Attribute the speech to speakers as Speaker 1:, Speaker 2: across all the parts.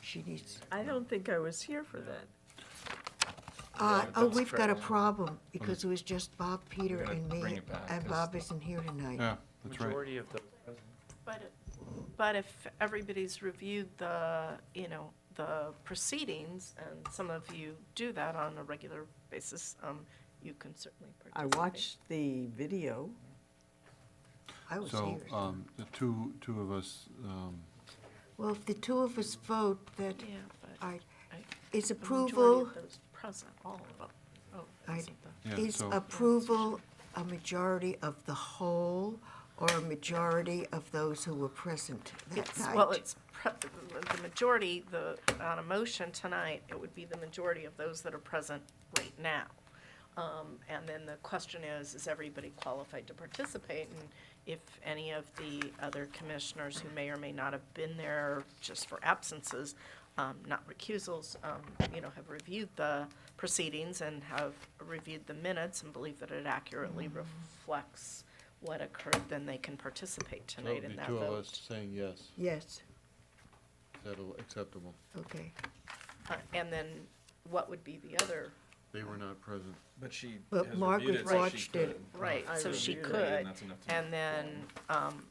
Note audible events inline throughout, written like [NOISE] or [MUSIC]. Speaker 1: she needs.
Speaker 2: I don't think I was here for that.
Speaker 1: Uh,
Speaker 3: Yeah,
Speaker 1: oh,
Speaker 3: that's
Speaker 1: we've got a
Speaker 3: correct.
Speaker 1: problem, because it was just Bob, Peter,
Speaker 3: gotta
Speaker 1: and
Speaker 3: bring
Speaker 1: me,
Speaker 3: it back,
Speaker 1: and
Speaker 3: 'cause
Speaker 1: Bob isn't here tonight.
Speaker 4: Yeah, that's right.
Speaker 3: Majority of the present.
Speaker 5: But, but if everybody's reviewed the, you know, the proceedings, and some of you do that on a regular basis, um, you can certainly
Speaker 2: I
Speaker 5: participate.
Speaker 2: watched the video.
Speaker 1: I was
Speaker 4: So,
Speaker 1: here.
Speaker 6: uh,
Speaker 4: um, the two, two of us, um,
Speaker 1: Well, if the two of us vote that
Speaker 5: Yeah, but
Speaker 1: I-
Speaker 5: I-
Speaker 1: is
Speaker 5: the majority
Speaker 1: approval,
Speaker 5: of those present, all of them. Oh,
Speaker 1: I-
Speaker 5: isn't the-
Speaker 4: yeah,
Speaker 1: is
Speaker 4: so,
Speaker 1: approval a majority of the whole or a majority of those who were present that
Speaker 5: It's, well,
Speaker 1: night?
Speaker 5: it's, pre- the majority, the, on a motion tonight, it would be the majority of those that are present right now. Um, and then the question is, is everybody qualified to participate? And if any of the other commissioners who may or may not have been there just for absences, um, not recusals, um, you know, have reviewed the proceedings and have reviewed the minutes and believe that it accurately reflects what occurred, then they can participate
Speaker 6: So
Speaker 5: tonight in
Speaker 6: the
Speaker 5: that
Speaker 6: two
Speaker 5: vote.
Speaker 6: of us saying yes,
Speaker 1: Yes,
Speaker 6: that'll acceptable.
Speaker 1: okay.
Speaker 5: Uh, And then what would be the other?
Speaker 6: They were not present.
Speaker 3: But she
Speaker 1: But
Speaker 3: has
Speaker 1: Margaret
Speaker 3: reviewed it, so she
Speaker 1: watched it.
Speaker 3: could.
Speaker 5: Right,
Speaker 2: I
Speaker 5: so she
Speaker 2: reviewed it.
Speaker 5: could,
Speaker 3: And that's enough to-
Speaker 5: and then um,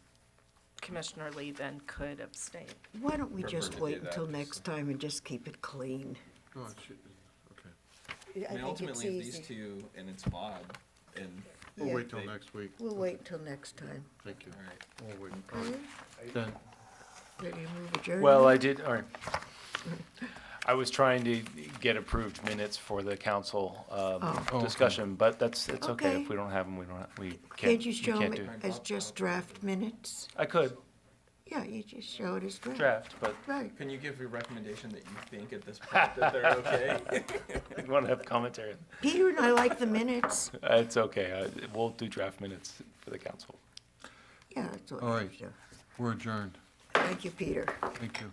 Speaker 5: Commissioner Lee then could abstain.
Speaker 1: Why don't we
Speaker 3: Prefer
Speaker 1: just
Speaker 3: to do
Speaker 1: wait
Speaker 3: that,
Speaker 1: until
Speaker 3: just-
Speaker 1: next time and just keep it clean?
Speaker 6: No, it Oh, should, okay.
Speaker 3: I mean, ultimately, if these two, and it's Bob, and,
Speaker 1: Yeah.
Speaker 6: We'll wait till
Speaker 3: They-
Speaker 6: next week.
Speaker 1: We'll wait until next time.
Speaker 6: Thank you.
Speaker 3: all right. Mm-hmm.
Speaker 6: We'll wait.
Speaker 1: Okay?
Speaker 6: Then,
Speaker 1: Ready to move adjournment?
Speaker 7: Well, I did, all right. I was trying to get approved minutes for the council um,
Speaker 1: Oh.
Speaker 7: discussion, but that's, it's okay.
Speaker 1: Okay.
Speaker 7: If we don't have them, we don't, ha- we can't,
Speaker 1: Can't you
Speaker 7: we
Speaker 1: show
Speaker 7: can't
Speaker 1: them
Speaker 7: do.
Speaker 1: as just draft minutes?
Speaker 7: I could
Speaker 1: Yeah, you just show it as draft.
Speaker 7: draft, but [LAUGHS]
Speaker 1: Right.
Speaker 3: Can you give a recommendation that you think at this point that they're [LAUGHS] okay?
Speaker 7: I want to have commentary.
Speaker 1: Peter and I like the minutes.
Speaker 7: Uh, It's okay. I- We'll do draft minutes for the council.
Speaker 1: Yeah, that's what
Speaker 4: All
Speaker 1: I
Speaker 4: right.
Speaker 1: show.
Speaker 4: we're adjourned.
Speaker 1: Thank you, Peter.
Speaker 4: Thank you.